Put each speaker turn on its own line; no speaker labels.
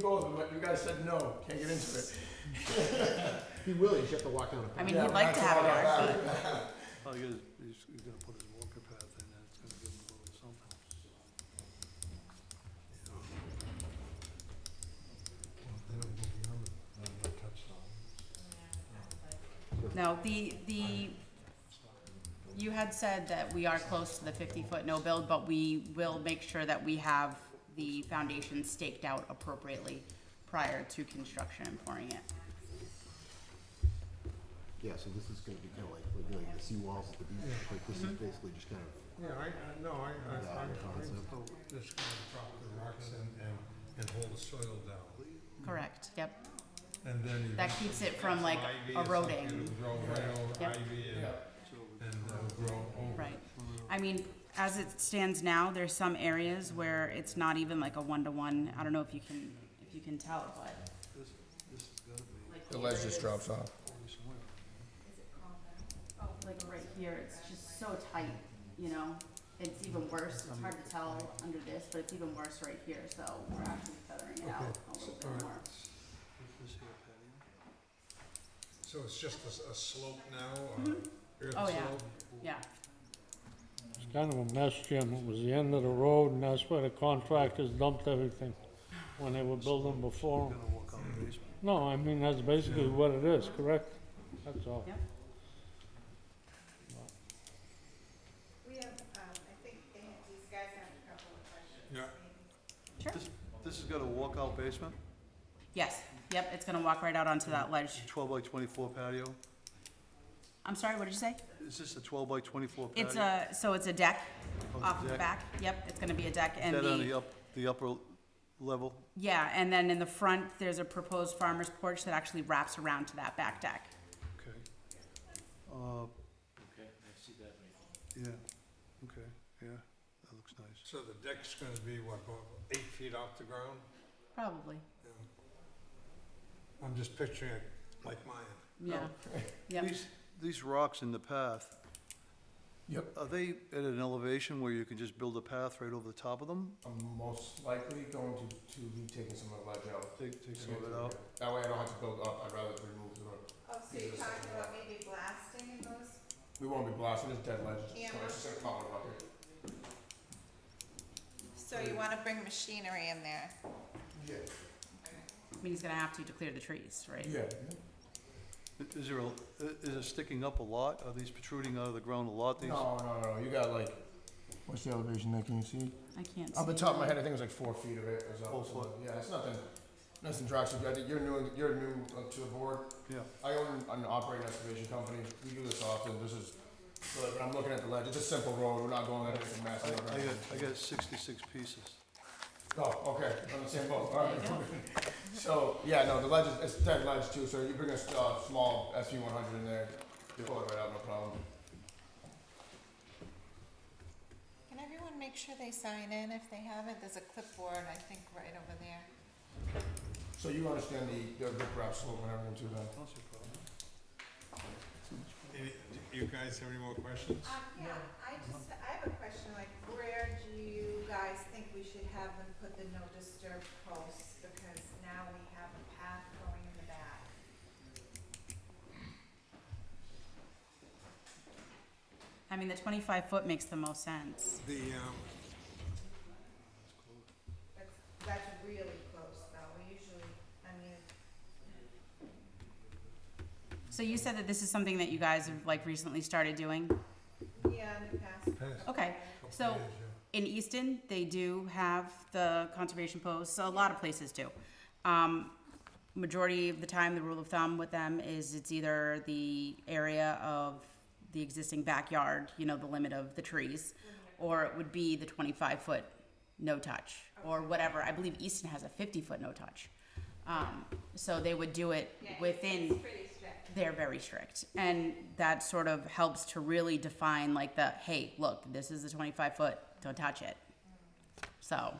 go with it, but you guys said no, can't get into it.
He will, you just have to walk down a
I mean,
Yeah,
he'd like to
that's
have
all
it,
I
actually.
got.
Well, he is, he's, he's gonna put his walker path in, and it's gonna give him a little something.
They don't go beyond the, the touchstone.
No, the, the, you had said that we are close to the fifty-foot no build, but we will make sure that we have the foundation staked out appropriately prior to construction and pouring it.
Yeah, so this is gonna be kinda like, like doing the seawalls at the beach, like this is basically just kind of
Yeah, I, I, no, I, I, I,
that concept.
I, this kind of drop the rocks and, and, and hold the soil down,
Correct, yep.
and then you.
That keeps it from like
Ivy or something,
eroding,
it'll Grow right over
Yep.
ivy and, and it'll grow over.
right. I mean, as it stands now, there's some areas where it's not even like a one-to-one, I don't know if you can, if you can tell, but.
This, this has gotta be
The ledge just drops off.
forty somewhere.
like right here, it's just so tight, you know? It's even worse, it's hard to tell under this, but it's even worse right here, so we're actually feathering it out a little bit more.
What's this here, patio?
So it's just a, s- a slope now, or earth
Oh, yeah.
slope?
Yeah,
It's kind of a mess, Jim. It was the end of the road, and that's where the contractors dumped everything when they were building before. 'em.
Gonna walk out the basement.
No, I mean, that's basically what it is, correct? That's all.
Yep.
We have, um, I think they, these guys have a couple of questions.
Yeah.
sure.
This, this is gonna walk out basement,
Yes, yep, it's gonna walk right out onto that ledge.
twelve by twenty-four patio.
I'm sorry, what did you say?
Is this a twelve by twenty-four patio?
It's a, so it's a deck
Oh,
off the
deck.
back, yep, it's gonna be a deck
Is
and
that on the
the,
up, the upper level?
yeah, and then in the front, there's a proposed farmer's porch that actually wraps around to that back deck.
Okay. Uh. Okay, I see that. Yeah, okay, yeah, that looks nice.
So the deck's gonna be what, about eight feet off the ground?
Probably,
Yeah. I'm just picturing it like mine.
yeah, yep.
These, these rocks in the path,
Yep,
are they at an elevation where you can just build a path right over the top of them?
I'm most likely going to, to be taking some of the ledge out.
Take, take some of it out?
That way I don't have to build up, I'd rather remove the,
Oh, so you're talking about maybe blasting in those?
we won't be blasting, it's dead ledge, it's
Yeah.
just gonna come out up here.
So you wanna bring machinery in there?
Yeah.
I mean, he's gonna have to to clear the trees, right?
Yeah.
I- Is there a, i- is it sticking up a lot? Are these protruding out of the ground a lot, these?
No, no, no, you got like, what's the elevation there, can you see?
I can't see.
Off the top of my head, I think it was like four feet of it, it was up.
Four
so,
foot.
Yeah, it's nothing, nothing drastic, I think you're new, you're new uh, to the board,
Yeah,
I own an operating excavation company. We do this often. This is, but when I'm looking at the ledge, it's a simple road. We're not going at anything
I, I
massive.
got, I got sixty-six pieces.
Oh, okay. On the same boat. All right. so yeah, no, the ledge is it's dead ledge too. So you bring a s- uh, small SV 100 in there, you pull it right out, no problem.
Can everyone make sure they sign in if they haven't? There's a clipboard, I think, right over there.
So you understand the the rip wrap slope and everything too, then?
That's a problem.
Any, you guys have any more questions?
Um, yeah, I just, I have a question, like, where do you guys think we should have them put the no disturb posts? Because now we have a path going in the back.
I mean, the twenty-five foot makes the most sense.
The, um,
That's, that's really close though, we usually, I mean,
So you said that this is something that you guys have like recently started doing?
yeah, in the past.
past
Okay,
couple
So-
days, yeah.
in Easton, they do have the conservation posts, a lot of places do. Um, majority of the time, the rule of thumb with them is it's either the area of the existing backyard, you know, the limit of the trees, or it would be the twenty-five foot no touch, or whatever, I believe Easton has a fifty foot no touch. Um, so they would do it within
pretty strict.
they're very strict and that sort of helps to really define like the hey look this is the 25 foot don't touch it so